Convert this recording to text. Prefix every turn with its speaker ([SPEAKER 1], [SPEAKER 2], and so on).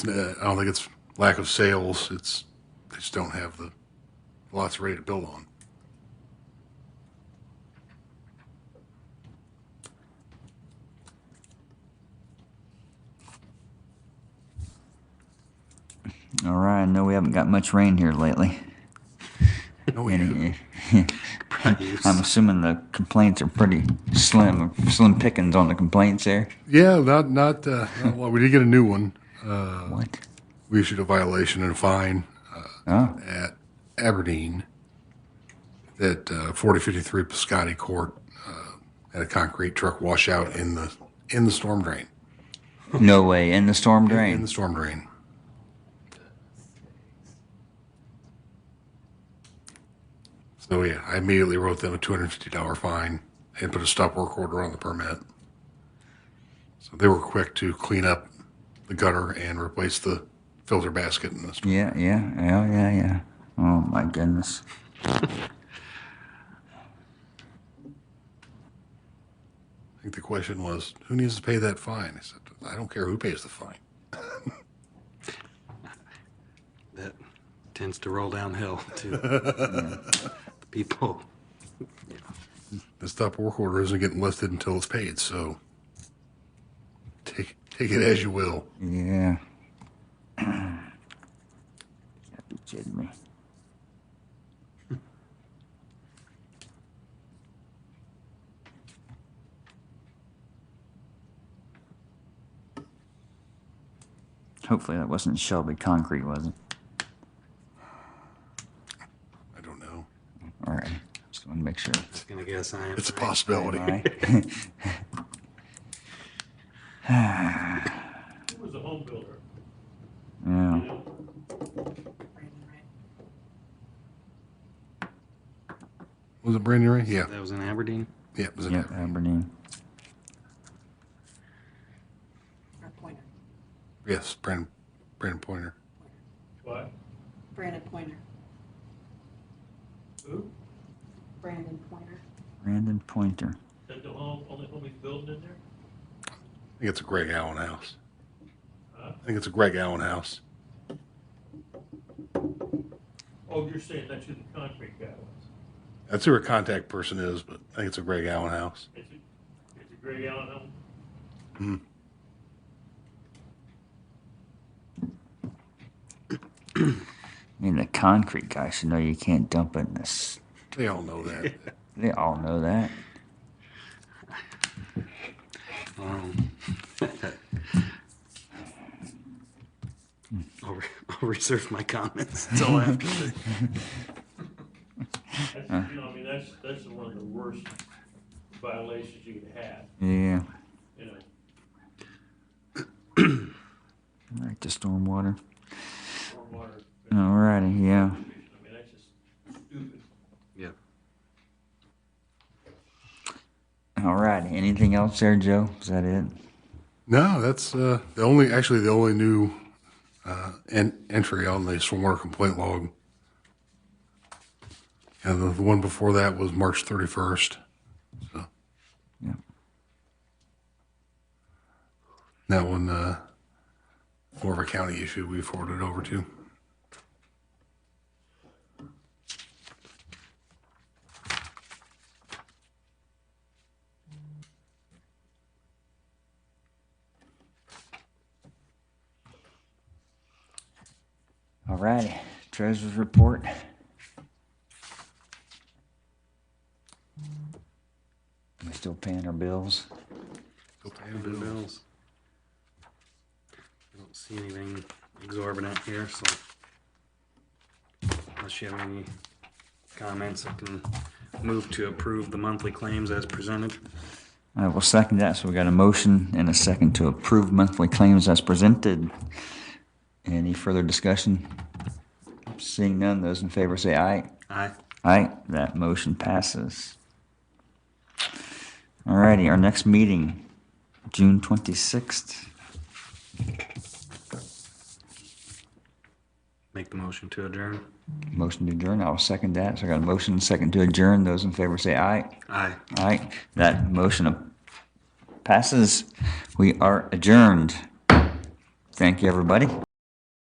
[SPEAKER 1] Uh, I don't think it's lack of sales. It's they just don't have the lots ready to build on.
[SPEAKER 2] All right, I know we haven't got much rain here lately.
[SPEAKER 1] No, we haven't.
[SPEAKER 2] Any- I'm assuming the complaints are pretty slim, slim pickings on the complaints there.
[SPEAKER 1] Yeah, not not. Uh, not well, we did get a new one. Uh,
[SPEAKER 2] What?
[SPEAKER 1] We issued a violation and a fine
[SPEAKER 2] Oh,
[SPEAKER 1] at Aberdeen at uh, 4053 Piscotty Court uh, at a concrete truck washout in the in the storm drain.
[SPEAKER 2] no way! In the storm
[SPEAKER 1] In the
[SPEAKER 2] drain.
[SPEAKER 1] storm drain. So yeah, I immediately wrote them a two hundred fifty dollar fine and put a stop work order on the permit. So they were quick to clean up the gutter and replace the filter basket in the storm.
[SPEAKER 2] Yeah, yeah, yeah, yeah, yeah. Oh my goodness.
[SPEAKER 1] I think the question was, who needs to pay that fine? I said, I don't care who pays the fine.
[SPEAKER 3] that tends to roll downhill to the people.
[SPEAKER 1] The stop work order isn't getting lifted until it's paid. So take take it as you will.
[SPEAKER 2] Yeah. Gotta be kidding me. Hopefully that wasn't Shelby concrete, was it?
[SPEAKER 1] I don't know.
[SPEAKER 2] All right. Just want to make sure.
[SPEAKER 3] Just gonna guess I am.
[SPEAKER 1] It's a
[SPEAKER 3] right.
[SPEAKER 1] possibility.
[SPEAKER 2] Aye.
[SPEAKER 4] Who was a home builder?
[SPEAKER 2] yeah.
[SPEAKER 4] You know,
[SPEAKER 1] Was it Brandon Ray? Yeah.
[SPEAKER 3] That was in Aberdeen.
[SPEAKER 1] Yeah, it was in
[SPEAKER 2] Yep,
[SPEAKER 1] Aberdeen.
[SPEAKER 2] Aberdeen.
[SPEAKER 5] Or Pointer,
[SPEAKER 1] Yes, Brandon, Brandon Pointer.
[SPEAKER 4] what?
[SPEAKER 5] Brandon Pointer,
[SPEAKER 4] Who?
[SPEAKER 5] Brandon Pointer.
[SPEAKER 2] Brandon Pointer.
[SPEAKER 4] That the home, only home he's building in there?
[SPEAKER 1] I think it's a Greg Allen house.
[SPEAKER 4] Huh?
[SPEAKER 1] I think it's a Greg Allen house.
[SPEAKER 4] Oh, you're saying that's who the concrete guy was.
[SPEAKER 1] That's who her contact person is, but I think it's a Greg Allen house.
[SPEAKER 4] It's a, it's a Greg Allen home.
[SPEAKER 2] I mean, the concrete guy should know you can't dump it in this.
[SPEAKER 1] They all know that.
[SPEAKER 2] They all know that.
[SPEAKER 3] Um, I'll, re- I'll reserve my comments until after. the-
[SPEAKER 4] That's, you know, I mean, that's, that's one of the worst violations you could have,
[SPEAKER 2] Yeah.
[SPEAKER 4] you know.
[SPEAKER 2] I like the stormwater.
[SPEAKER 4] stormwater.
[SPEAKER 2] Alrighty, yeah.
[SPEAKER 4] I mean, that's just stupid.
[SPEAKER 3] Yep.
[SPEAKER 2] Alrighty. Anything else there, Joe? Is that it?
[SPEAKER 1] no, that's uh, the only, actually, the only new uh, en- entry on the stormwater complaint log. And the, the one before that was March 31st. So
[SPEAKER 2] Yeah.
[SPEAKER 1] that one, uh, more of a county issue we forwarded over to.
[SPEAKER 2] Alrighty. Treasurer's report. We still paying our bills?
[SPEAKER 3] Paying the bills. I don't see anything exorbitant here, so unless you have any comments, I can move to approve the monthly claims as presented.
[SPEAKER 2] I will second that. So we got a motion and a second to approve monthly claims as presented. Any further discussion? Seeing none, those in favor say aye.
[SPEAKER 3] Aye.
[SPEAKER 2] Aye, that motion passes. Alrighty, our next meeting, June twenty-sixth.
[SPEAKER 3] Make the motion to adjourn.
[SPEAKER 2] Motion to adjourn, I'll second that. So I got a motion, second to adjourn. Those in favor say aye.
[SPEAKER 3] Aye.
[SPEAKER 2] Aye, that motion passes. We are adjourned. Thank you, everybody.